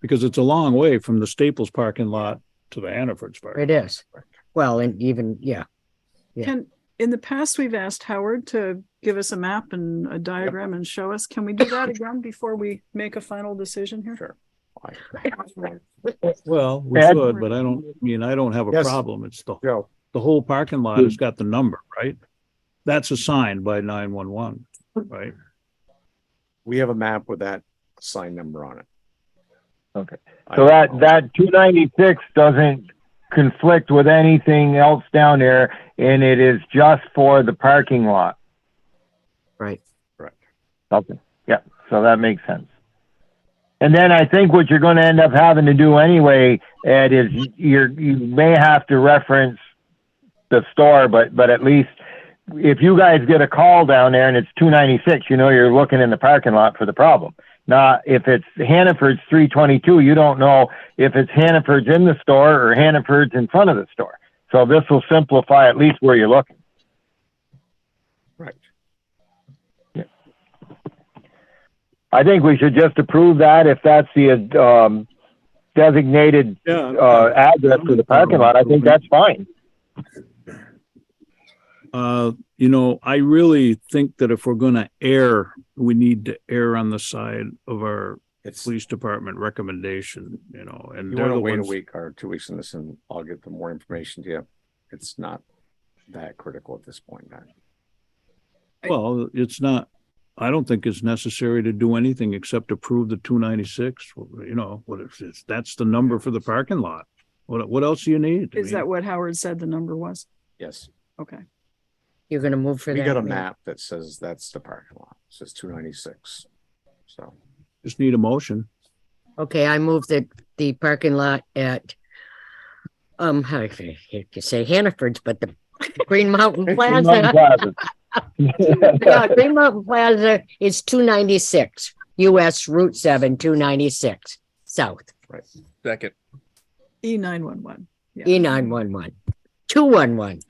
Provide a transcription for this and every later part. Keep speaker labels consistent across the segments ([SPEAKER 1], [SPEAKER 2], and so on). [SPEAKER 1] because it's a long way from the Staples parking lot to the Hannaford's parking.
[SPEAKER 2] It is. Well, and even, yeah, Yeah.
[SPEAKER 3] Can, in the past, we've asked Howard to give us a map and a diagram and show us. Can we do that again before we make a final decision here? Sure.
[SPEAKER 1] Well, we
[SPEAKER 4] Ed?
[SPEAKER 1] should, but I don't, I mean, I don't have a
[SPEAKER 4] Yes. Hmm.
[SPEAKER 1] problem. It's the,
[SPEAKER 4] Joe,
[SPEAKER 1] the whole parking lot has got the number, right? That's assigned by nine one one, right?
[SPEAKER 4] we have a map with that sign number on it.
[SPEAKER 5] Okay.
[SPEAKER 4] I
[SPEAKER 5] So
[SPEAKER 4] don't
[SPEAKER 5] that,
[SPEAKER 4] know.
[SPEAKER 5] that two ninety-six doesn't conflict with anything else down there, and it is just for the parking lot.
[SPEAKER 2] right.
[SPEAKER 5] Okay, yeah, so that makes sense. And then I think what you're gonna end up having to do anyway, Ed, is you're, you may have to reference the store, but, but at least if you guys get a call down there and it's two ninety-six, you know you're looking in the parking lot for the problem. Now, if it's Hannaford's three twenty-two, you don't know if it's Hannaford's in the store or Hannaford's in front of the store. So this will simplify at least where you're looking.
[SPEAKER 4] Right.
[SPEAKER 5] I think we should just approve that if that's the um, designated uh,
[SPEAKER 1] Yeah.
[SPEAKER 5] address for the parking lot. I think that's fine.
[SPEAKER 1] Uh, you know, I really think that if we're gonna err, we need to err on the side of our
[SPEAKER 4] It's, you
[SPEAKER 1] police department recommendation, you know, and they're
[SPEAKER 4] wanna
[SPEAKER 1] the
[SPEAKER 4] wait a
[SPEAKER 1] ones.
[SPEAKER 4] week or two weeks on this and I'll get the more information to you. It's not that critical at this point, man.
[SPEAKER 1] Well, it's not, I don't think it's necessary to do anything except approve the two ninety-six, you know, what if it's, that's the number for the parking lot. What, what else do you need? I
[SPEAKER 3] Is
[SPEAKER 1] mean,
[SPEAKER 3] that what Howard said the number was?
[SPEAKER 4] Yes,
[SPEAKER 3] Okay.
[SPEAKER 2] You're gonna move for that.
[SPEAKER 4] we got a
[SPEAKER 2] Lee?
[SPEAKER 4] map that says that's the parking lot. It says two ninety-six. So
[SPEAKER 1] Just need a motion.
[SPEAKER 2] Okay, I move that the parking lot at, um, how do you you could say Hannaford's, but the Green Mountain Plaza. Yeah, Green Mountain Plaza is two ninety-six, US Route seven, two ninety-six, south,
[SPEAKER 6] Second.
[SPEAKER 3] E nine one one.
[SPEAKER 2] E nine one one, two one one.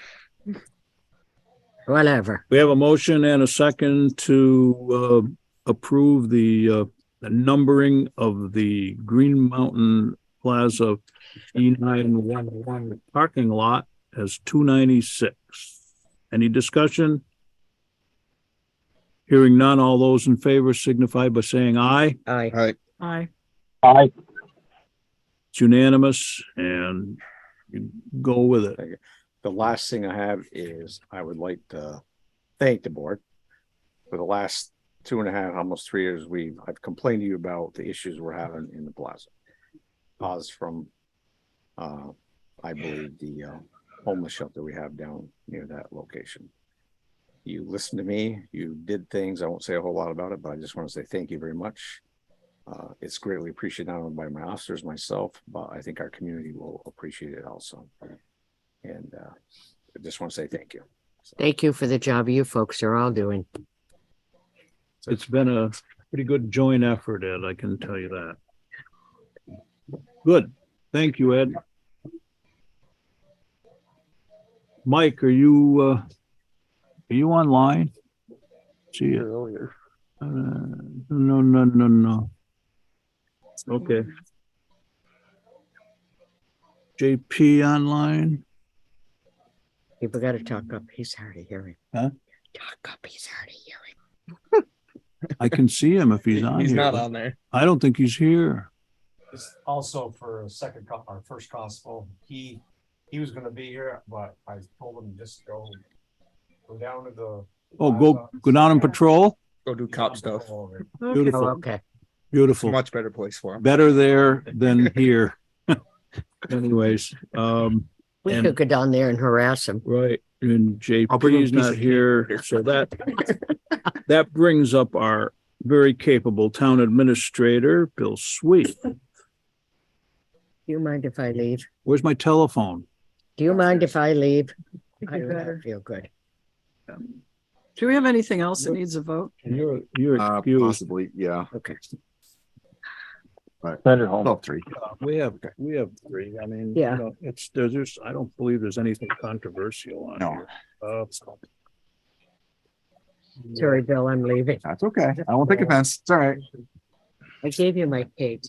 [SPEAKER 2] Whatever.
[SPEAKER 1] We have a motion and a second to, uh, approve the, uh, the numbering of the Green Mountain Plaza E nine one one parking lot as two ninety-six. Any discussion? Hearing none, all those in favor signify by saying aye.
[SPEAKER 2] I,
[SPEAKER 3] Aye.
[SPEAKER 5] I,
[SPEAKER 1] It's unanimous and you go with it.
[SPEAKER 4] the last thing I have is I would like to thank the board. For the last two and a half, almost three years, we, I've complained to you about the issues we're having in the plaza. Pause from, uh, I believe the uh, homeless shelter we have down near that location. You listened to me, you did things, I won't say a whole lot about it, but I just want to say thank you very much. Uh, it's greatly appreciated not only by my officers, myself, but I think our community will appreciate it also. And uh, I just want to say thank you.
[SPEAKER 2] thank you for the job you folks are all doing.
[SPEAKER 1] It's been a pretty good joint effort, Ed, I can tell you that. Good. Thank you, Ed. Mike, are you, uh, are you online? See you.
[SPEAKER 6] Earlier.
[SPEAKER 1] Uh, no, no, no, no. Okay. JP online?
[SPEAKER 2] People gotta talk up, he's hard of hearing.
[SPEAKER 1] Huh?
[SPEAKER 2] Talk up, he's hard of hearing.
[SPEAKER 1] I can see him if he's on
[SPEAKER 6] He's not
[SPEAKER 1] here.
[SPEAKER 6] on there.
[SPEAKER 1] I don't think he's here.
[SPEAKER 7] It's also for a second, co- our first constable, he, he was gonna be here, but I told him just go. Go down to the.
[SPEAKER 1] Oh, go, go down and patrol?
[SPEAKER 6] Go do cop stuff.
[SPEAKER 3] Okay.
[SPEAKER 1] Beautiful.
[SPEAKER 2] Oh, okay.
[SPEAKER 1] Beautiful.
[SPEAKER 6] Much better place for him.
[SPEAKER 1] better there than here. Anyways, um,
[SPEAKER 2] We
[SPEAKER 1] And-
[SPEAKER 2] could go down there and harass him.
[SPEAKER 1] right, and
[SPEAKER 6] I'll bring him
[SPEAKER 1] JP
[SPEAKER 6] a
[SPEAKER 1] is
[SPEAKER 6] piece
[SPEAKER 1] not
[SPEAKER 6] of cake
[SPEAKER 1] here,
[SPEAKER 6] later.
[SPEAKER 1] so that, that brings up our very capable town administrator, Bill Sweet.
[SPEAKER 2] Do you mind if I leave?
[SPEAKER 1] Where's my telephone?
[SPEAKER 2] Do you mind if I leave?
[SPEAKER 3] I think
[SPEAKER 2] I
[SPEAKER 3] we
[SPEAKER 2] do not
[SPEAKER 3] better.
[SPEAKER 2] feel good.
[SPEAKER 3] Do we have anything else that needs a vote?
[SPEAKER 1] You're, you're
[SPEAKER 8] Uh,
[SPEAKER 1] excused.
[SPEAKER 8] possibly, yeah.
[SPEAKER 2] Okay.
[SPEAKER 5] send it
[SPEAKER 4] Oh.
[SPEAKER 5] home.
[SPEAKER 8] Top three.
[SPEAKER 1] Uh, We have, we have three. I mean,
[SPEAKER 2] Yeah.
[SPEAKER 1] you know, it's, there's, there's, I don't believe there's anything controversial on
[SPEAKER 8] No.
[SPEAKER 1] here. Uh,
[SPEAKER 2] Sorry, Bill, I'm leaving.
[SPEAKER 8] That's okay. I won't take offense. It's all right.
[SPEAKER 2] I gave you my cake.